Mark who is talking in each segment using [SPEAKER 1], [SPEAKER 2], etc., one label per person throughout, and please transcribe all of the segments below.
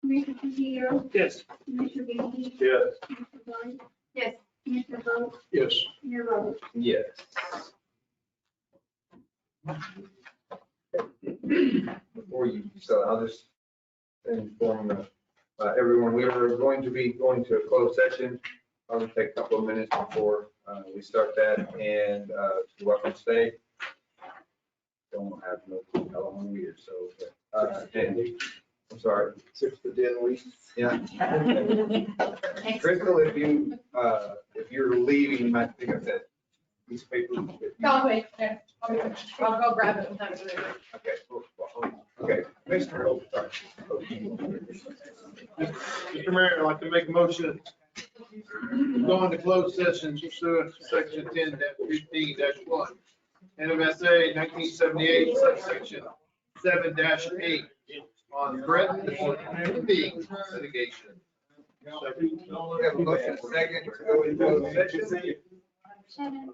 [SPEAKER 1] Commissioner Tejero,
[SPEAKER 2] Yes.
[SPEAKER 1] Commissioner Gandy,
[SPEAKER 2] Yes.
[SPEAKER 1] Commissioner White,
[SPEAKER 3] Yes.
[SPEAKER 1] Commissioner Bowe,
[SPEAKER 2] Yes.
[SPEAKER 1] Mayor Roberts.
[SPEAKER 4] Yes. Before you, so I'll just inform uh, uh, everyone, we are going to be going to a closed session. I'll just take a couple of minutes before uh, we start that and uh, to welcome stay. Don't have no clue how long we are, so. uh, I'm sorry.
[SPEAKER 2] Six to ten weeks.
[SPEAKER 4] Yeah.
[SPEAKER 3] Thanks.
[SPEAKER 4] Crystal, if you, uh, if you're leaving, you might pick up that piece of paper.
[SPEAKER 3] I'll wait, there. I'll be- I'll go grab it. when I'm through.
[SPEAKER 4] Okay, well, well, okay, Commissioner, oh, sorry.
[SPEAKER 2] Mr. Mayor, I'd like to make a motion. Going to closed session pursuant to section ten fifteen one. NMSA nineteen seventy-eight subsection seven eight on threat and litigation.
[SPEAKER 4] We have a motion second to go into closed session.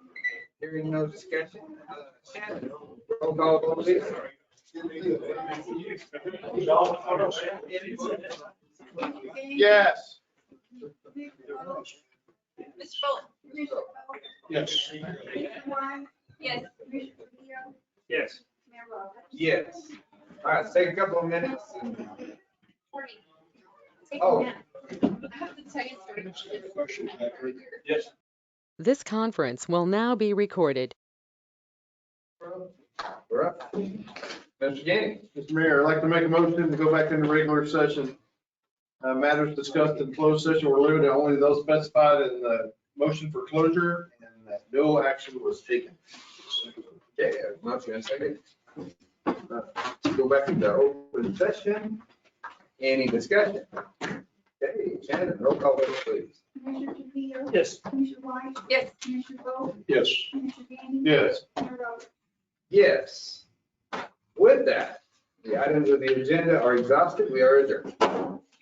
[SPEAKER 4] Hearing no discussion. Uh, Shannon, Roll call, vote, please.
[SPEAKER 2] Yes.
[SPEAKER 3] Mr. Bolt?
[SPEAKER 1] Commissioner Bowe,
[SPEAKER 2] Yes.
[SPEAKER 1] Commissioner White,
[SPEAKER 3] Yes.
[SPEAKER 1] Commissioner Tejero,
[SPEAKER 5] Yes.
[SPEAKER 1] Mayor Roberts.
[SPEAKER 4] Yes. All right, take a couple of minutes. and-
[SPEAKER 3] Take
[SPEAKER 4] Oh.
[SPEAKER 3] it now. I have to tell you a story.
[SPEAKER 5] Yes.
[SPEAKER 6] This conference will now be recorded.
[SPEAKER 4] We're up. Mr. Gaines.
[SPEAKER 2] Mr. Mayor, I'd like to make a motion to go back into regular session. Uh, Matters discussed in closed session were limited to only those specified in the motion for closure and that no action was taken.
[SPEAKER 4] Okay, I have a motion and a second. Uh, Go back into open session. Any discussion? Okay, Shannon, roll call, vote, please.
[SPEAKER 1] Commissioner Tejero,
[SPEAKER 5] Yes.
[SPEAKER 1] Commissioner White,
[SPEAKER 3] Yes.
[SPEAKER 1] Commissioner Bowe,
[SPEAKER 2] Yes.
[SPEAKER 1] Commissioner Gandy,
[SPEAKER 2] Yes.
[SPEAKER 1] Mayor Roberts.
[SPEAKER 4] Yes. With that, the items of the agenda are exhausted. We are adjourned.